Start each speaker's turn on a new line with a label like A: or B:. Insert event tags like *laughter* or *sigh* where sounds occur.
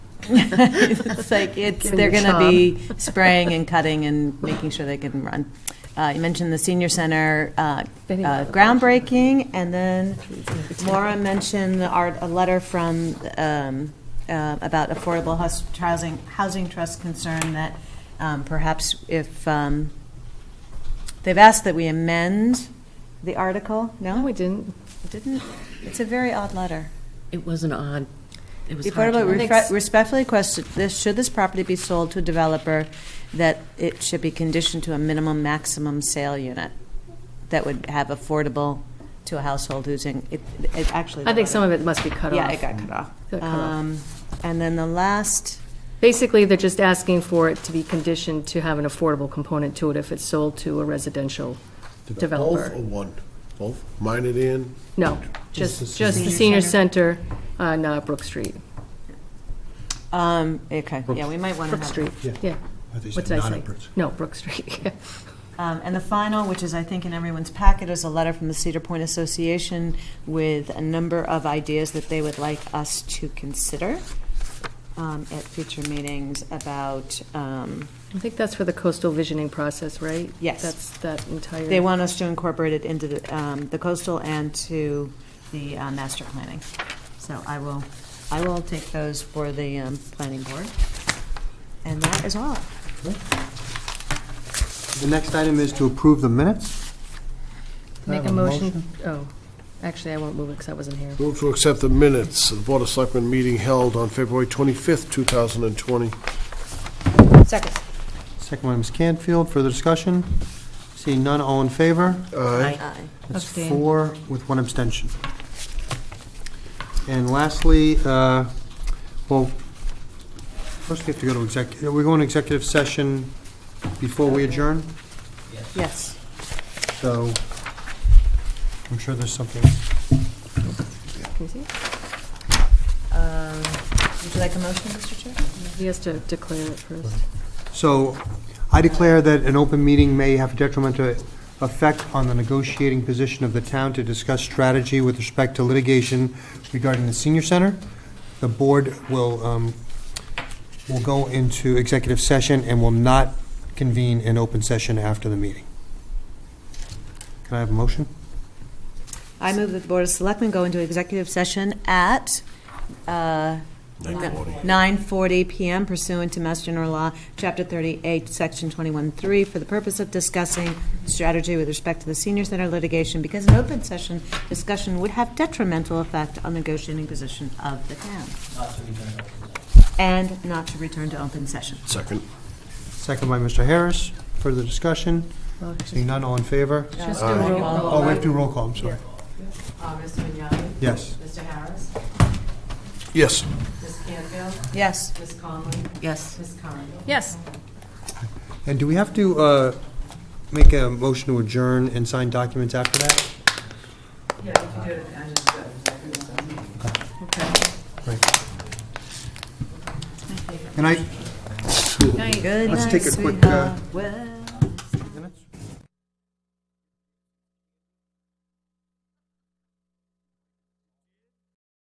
A: *laughs* It's like, it's,
B: Give 'em
A: they're
B: your
A: gonna
B: job.
A: be
B: *laughs*
A: spraying and cutting and making sure they can run. Uh, You mentioned the senior center uh,
B: Bidding
A: uh,
B: for the-
A: groundbreaking, and then Laura mentioned the art, a letter from, um, uh, about affordable hus- housing, housing trust concern that um, perhaps if, um, they've asked that we amend the article, no?
B: No, we didn't.
A: Didn't, it's a very odd letter.
C: It was an odd, it was
A: The
C: hard
A: Affordable,
C: to.
B: read.
A: refre- respectfully question, this, should this property be sold to a developer, that it should be conditioned to a minimum maximum sale unit that would have affordable to a household who's in, it, it actually.
B: I think some of it must be cut off.
A: Yeah, it got cut off.
B: Got cut off.
A: Um, And then the last,
B: Basically, they're just asking for it to be conditioned to have an affordable component to it if it's sold to a residential
D: Both
B: developer.
D: or one? Both? Mine and Ann?
B: No, oh. just, just the senior center on uh, Brook Street,
A: um, okay, yeah, we might want to
B: Brook
A: have.
B: Street, yeah. What did I say? No, Brook Street, *laughs*
A: Um, And the final, which is, I think, in everyone's packet, is a letter from the Cedar Point Association with a number of ideas that they would like us to consider um, at future meetings about, um,
B: I think that's for the coastal visioning process, right?
A: Yes.
B: That's that entire.
A: they want us to incorporate it into the um, the coastal and to the uh, master planning. So I will, I will take those for the um, planning board. And that is all.
E: The next item is to approve the minutes.
B: Make a motion, oh, actually, I won't move it because I wasn't here.
D: Move to accept the minutes of the Board of Selectmen meeting held on February 25th, 2020.
A: Second.
E: Second one, Ms. Canfield, further discussion? Seeing none, all in favor?
D: Aye.
E: That's
B: Abstain.
E: four with one abstention. And lastly, uh, well, first we have to go to executive, are we going to executive session before we adjourn?
A: Yes.
E: So I'm sure there's something.
B: Can you see?
A: Um, Would you like a motion, Mr. Chair?
B: He has to declare it first.
E: So I declare that an open meeting may have detrimental effect on the negotiating position of the town to discuss strategy with respect to litigation regarding the senior center. The board will, um, will go into executive session and will not convene an open session after the meeting. Can I have a motion?
A: I move that the Board of Selectmen go into executive session at uh, 9:40 PM pursuant to Mass General Law, Chapter 38, Section 21-3, for the purpose of discussing strategy with respect to the senior center litigation, because an open session discussion would have detrimental effect on the negotiating position of the town. And not to return to open session.
D: Second.
E: Second by Mr. Harris. Further discussion?
B: Well, just-
E: Seeing none, all in favor?
B: Just do roll call.
E: Oh, we have to do roll call, I'm sorry.
F: Mr. Vignani?
E: Yes.
F: Mr. Harris?
D: Yes.
F: Ms. Canfield?
A: Yes.
F: Ms. Conlon?
C: Yes.
F: Ms. Curran?
B: Yes.
E: And do we have to uh, make a motion to adjourn and sign documents after that? Yeah, you do it, Great. And I,
A: Good
E: Let's
A: night,
E: take a quick, uh,
A: sweetheart. Well-